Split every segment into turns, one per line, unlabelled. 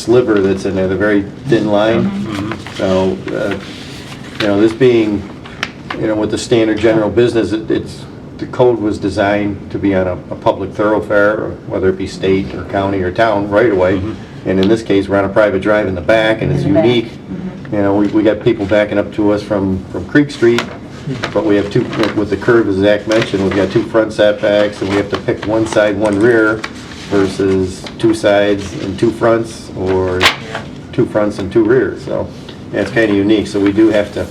sliver that's in there, the very thin line. So, uh, you know, this being, you know, with the standard general business, it- it's, the code was designed to be on a, a public thoroughfare, or whether it be state or county or town right away. And in this case, we're on a private drive in the back and it's
In the back. Mm-hmm.
unique. You know, we, we got people backing up to us from, from Creek Street, but we have two, with the curve, as Zach mentioned, we've got two front setbacks and we have to pick one side, one rear versus two sides and two fronts or two fronts and two rears, so yeah, it's kind of unique. So we do have to,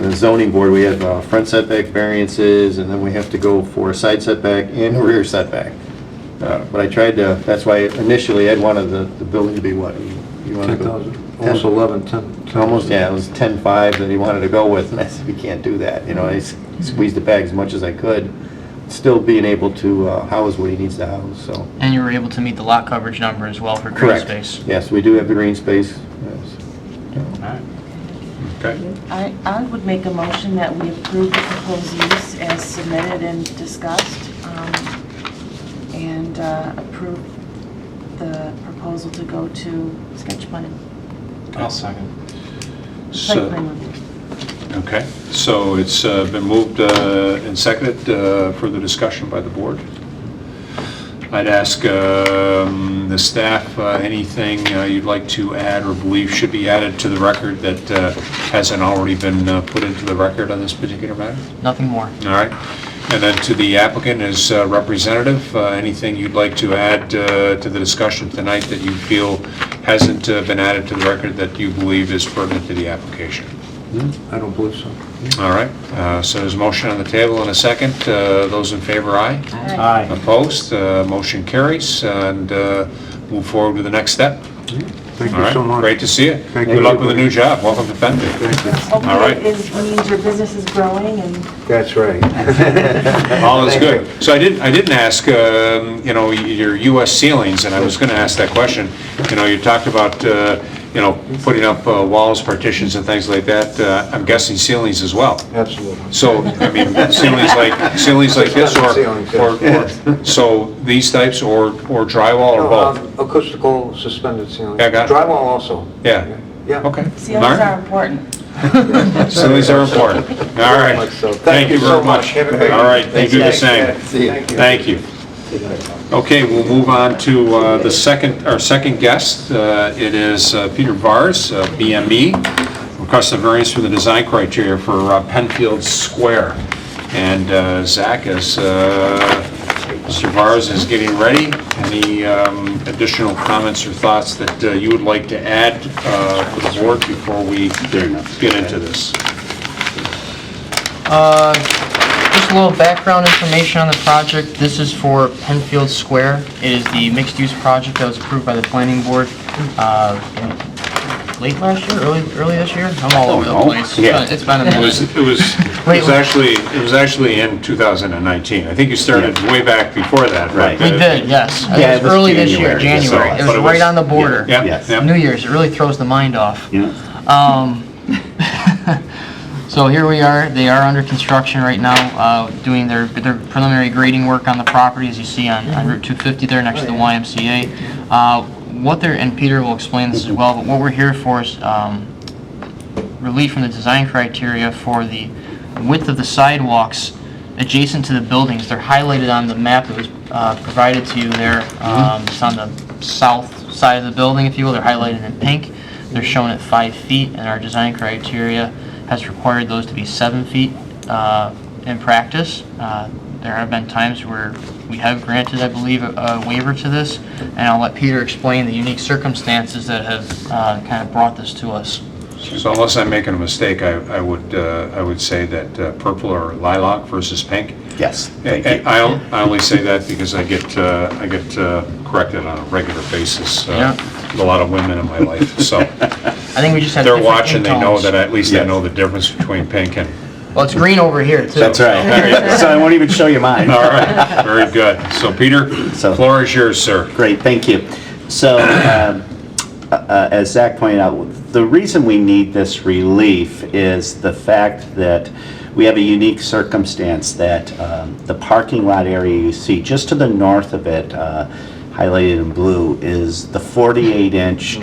the zoning board, we have uh, front setback variances and then we have to go for a side setback and a rear setback. Uh, But I tried to, that's why initially Ed wanted the, the building to be what? You- you wanted to go-
10,000, almost 11, 10.
Almost, yeah, it was ten-five that he wanted to go with, and I said, we can't do that, you know, I s- squeezed it back as much as I could, still being able to uh, house what he needs to house, so.
And you were able to meet the lot coverage number as well for green
Correct.
space.
Yes, we do have the green space, yes.
Okay.
I, I would make a motion that we approve the proposed use as submitted and discussed, um, and uh, approve the proposal to go to sketch plan and
I'll second.
site plan
So,
review.
okay, so it's uh, been moved uh, and seconded, uh, further discussion by the board. I'd ask um, the staff, uh, anything uh, you'd like to add or believe should be added to the record that uh, hasn't already been uh, put into the record on this particular matter?
Nothing more.
All right. And then to the applicant as uh, representative, uh, anything you'd like to add uh, to the discussion tonight that you feel hasn't uh, been added to the record that you believe is pertinent to the application?
I don't believe so.
All right. Uh, So there's a motion on the table and a second. Uh, Those in favor, aye.
Aye.
Opposed? Uh, Motion carries and uh, move forward to the next step.
Thank
All
you so
right.
much.
Great to see you.
Thank
Good
you.
luck with the new job. Welcome to Fenby.
Thank you.
Hopefully
right.
it is- means your business is growing and
That's right.
All is good. So I didn't, I didn't ask, um, you know, your US ceilings, and I was gonna ask that question. You know, you talked about, uh, you know, putting up uh, walls, partitions and things like that. Uh, I'm guessing ceilings as well.
Absolutely.
So, I mean, ceilings like, ceilings like this
Ceilings,
or,
yeah.
or, or, so these types or, or drywall or both?
Um, Acoustical suspended ceiling.
Yeah, got it.
Drywall also.
Yeah.
Yeah.
Okay.
ceilings
All right.
are important.
Ceilings are important. All right.
So,
Thank you very much.
Have a great-
All right, you do the same.
See ya.
Thank you. Okay, we'll move on to uh, the second, our second guest. Uh, It is uh, Peter Vars, uh, BME, requests a variance from the design criteria for uh, Penfield Square. And uh, Zach is, uh, Mr. Vars is getting ready. Any um, additional comments or thoughts that uh, you would like to add uh, for the board before we get into this?
Uh, Just a little background information on the project. This is for Penfield Square. It is the mixed-use project that was approved by the planning board uh, in late last year, early, early this year? I'm all over the
know.
place.
Oh, Yeah.
It's been a
It
minute.
was, it was, it
Wait,
was
wait.
actually, it was actually in 2019. I think you started way back before that, uh, right?
We did, yes.
Yeah,
It
it
was
was
early this year,
January, yes,
January. It
but
was
it was-
right on the border.
Yeah,
Yes.
yeah.
New Year's, it really throws the mind off.
Yeah.
Um, so here we are, they are under construction right now, uh, doing their, their preliminary grading work on the property, as you see on, on Route 250 there next to the YMCA. Uh, what they're, and Peter will explain this as well, but what we're here for is, um, relief from the design criteria for the width of the sidewalks adjacent to the buildings. They're highlighted on the map that was uh, provided to you there. Um, It's on the south side of the building, if you will. They're highlighted in pink. They're shown at five feet, and our design criteria has required those to be seven feet uh, in practice. Uh, There have been times where we have granted, I believe, a- a waiver to this, and I'll let Peter explain the unique circumstances that have uh, kind of brought this to us.
So unless I'm making a mistake, I, I would, uh, I would say that uh, purple or lilac versus pink.
Yes, thank
And
you.
I, I only say that because I get, uh, I get uh, corrected on a regular basis. uh,
Yeah.
with A lot of women in my life, so
I think we just had
they're
different
watching, they know
intones.
that at least I
Yes.
know the difference between pink and
Well, it's green over here, too.
That's right. So I won't even show you mine.
All right, very good. So Peter,
So-
floor is yours, sir.
Great, thank you. So, um, uh, uh, as Zach pointed out, the reason we need this relief is the fact that we have a unique circumstance that um, the parking lot area you see, just to the north of it, uh, highlighted in blue, is the 48-inch